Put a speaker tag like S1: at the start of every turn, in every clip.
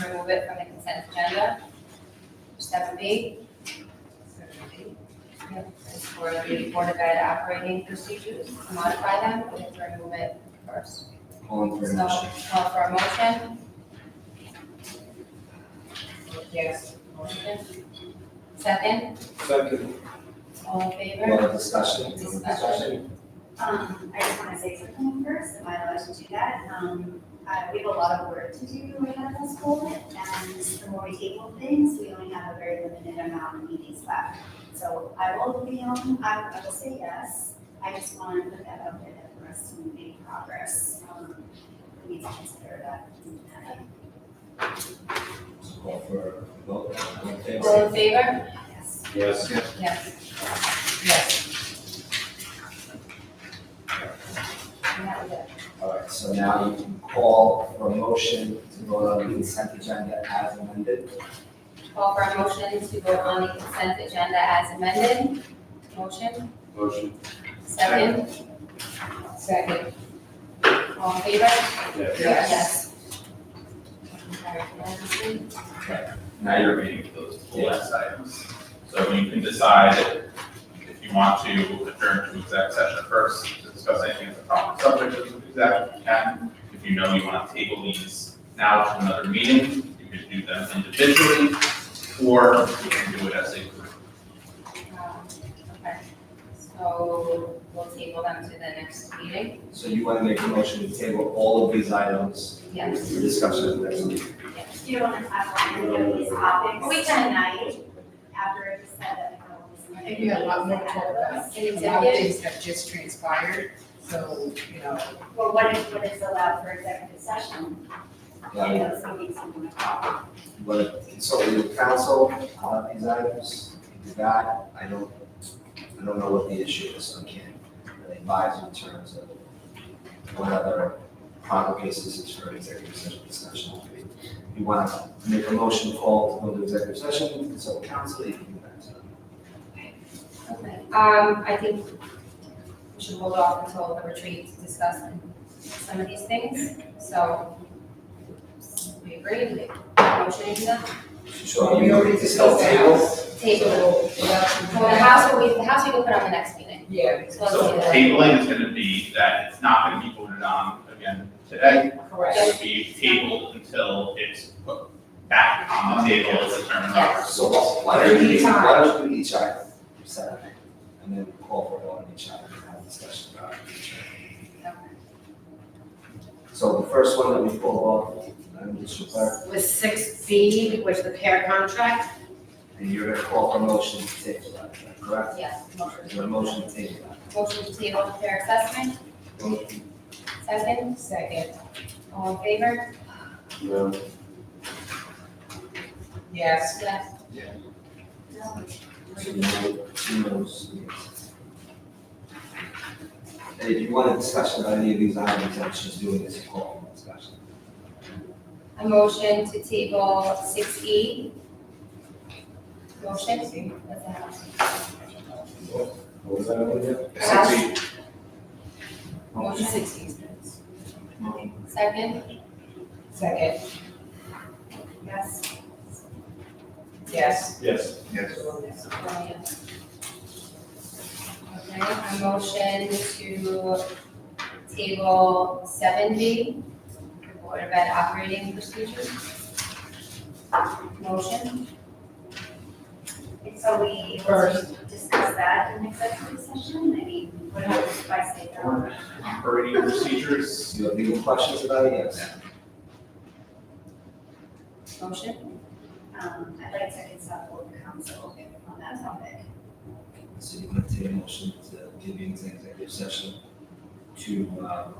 S1: remove it from the consent agenda. Seven B. Yep, it's for the Board of Ed operating procedures, modify them, we have to remove it first.
S2: Calling for a
S1: So,
S2: motion.
S1: call for a motion.
S3: Yes.
S1: Motion. Second,
S4: Second.
S1: all in favor?
S2: Well, discussion.
S1: Discussion.
S5: Um, I just want to say something first, am I allowed to do that? Um, uh, we have a lot of work to do right now in school, and the more we table things, we only have a very limited amount of meetings left. So I will be on, I I will say yes, I just want to put that out there that for us to make progress. Um, We need to consider that.
S2: Call for a vote. All in favor?
S1: All in favor?
S5: Yes.
S4: Yes.
S1: Yes.
S3: Yes.
S1: And that was it.
S2: All right, so now you can call for a motion to vote on the consent agenda as amended.
S1: Call for a motion to vote on the consent agenda as amended. Motion,
S4: Motion.
S1: second,
S3: Second.
S1: all in favor?
S4: Yes.
S3: Yes.
S1: Yes.
S2: Now you're,
S6: your meeting for those two last items. So you can decide if you want to adjourn to exec session first to discuss anything that's a proper subject of the exec, you can. If you know you want to table these now to another meeting, you can do them individually, or you can do it as a group.
S1: Um, Okay, so we'll table them to the next meeting.
S2: so you want to make a motion to table all of these items for
S1: Yes,
S2: discussion next week?
S5: Do you want to have one of these topics?
S1: We can.
S5: Tonight, after it's said that. we're all listening.
S3: I think we have a lot more to talk about.
S1: Any
S3: A lot of
S1: executive?
S3: things have just transpired, so, you know,
S5: Well, what is, what is allowed for executive session?
S2: Yeah,
S5: Those meetings you wanna call.
S2: but consult with counsel on these items. If you got, I don't, I don't know what the issue is, so I can't really advise in terms of what other proper cases is for executive session discussion. If you want to make a motion call to go to executive session, consult with counsel, you can do that. so.
S1: okay. Um, I think we should hold off until the retreat to discuss some of these things, so we agree, we motion to
S2: So
S3: we
S2: you
S3: already
S2: already
S3: discussed
S2: discussed
S3: the
S2: table,
S3: house.
S1: table. Well, the house, will be- the house we can put on the next meeting.
S3: Yeah,
S1: So let's
S6: So
S1: do that.
S6: tabling is gonna be that it's not gonna be voted on again today.
S3: correct.
S6: It will be tabled until it's put back on the table as a term of art.
S2: so why don't we, why don't we each item, set it, and then call for one each item and have a discussion about each item. So the first one that we pull off, I'm just clear,
S7: was six B, which the pair contract,
S2: and you're gonna call for motion to table that, is that correct?
S1: Yes,
S2: Is there a motion to table that?
S1: motion to table the fair assessment,
S2: Motion.
S1: second,
S3: Second,
S1: all in favor?
S4: No.
S3: yes.
S1: Yes.
S2: Two no- two no's, yes. And if you want a discussion on any of these items, I'm just doing this to call for discussion.
S1: A motion to table six E. Motion, that's a house.
S4: What was that over there?
S1: Six
S3: Motion
S2: Oh,
S1: Motion
S3: six E.
S1: Second,
S3: Second,
S1: yes.
S3: yes.
S4: Yes.
S2: Yes.
S1: Oh, yes. Okay, a motion to table seven B, Board of Ed operating procedures. Motion,
S5: And so we able to
S3: First.
S5: discuss that in executive session, I mean, what happens if I say no?
S6: operating procedures.
S2: Do you have legal questions about it? Yes.
S1: motion.
S5: Um, I'd like to consult with council on that topic.
S2: So you want to take a motion to give you an executive session to, um,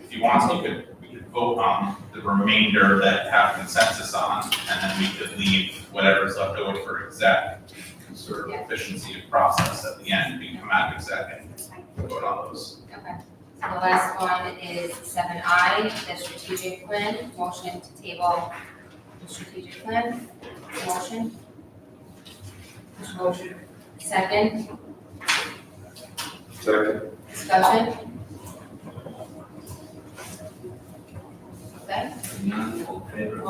S6: If you want, you could, we could vote on the remainder that have consensus on, and then we could leave whatever's left over for exec. Sort of efficiency of process at the end, we can come out of exec and vote on those.
S1: Okay. So the last one is seven I, the strategic plan, motion to table the strategic plan, motion. Motion. Second,
S4: Second.
S1: discussion. Okay.
S2: none, all in favor?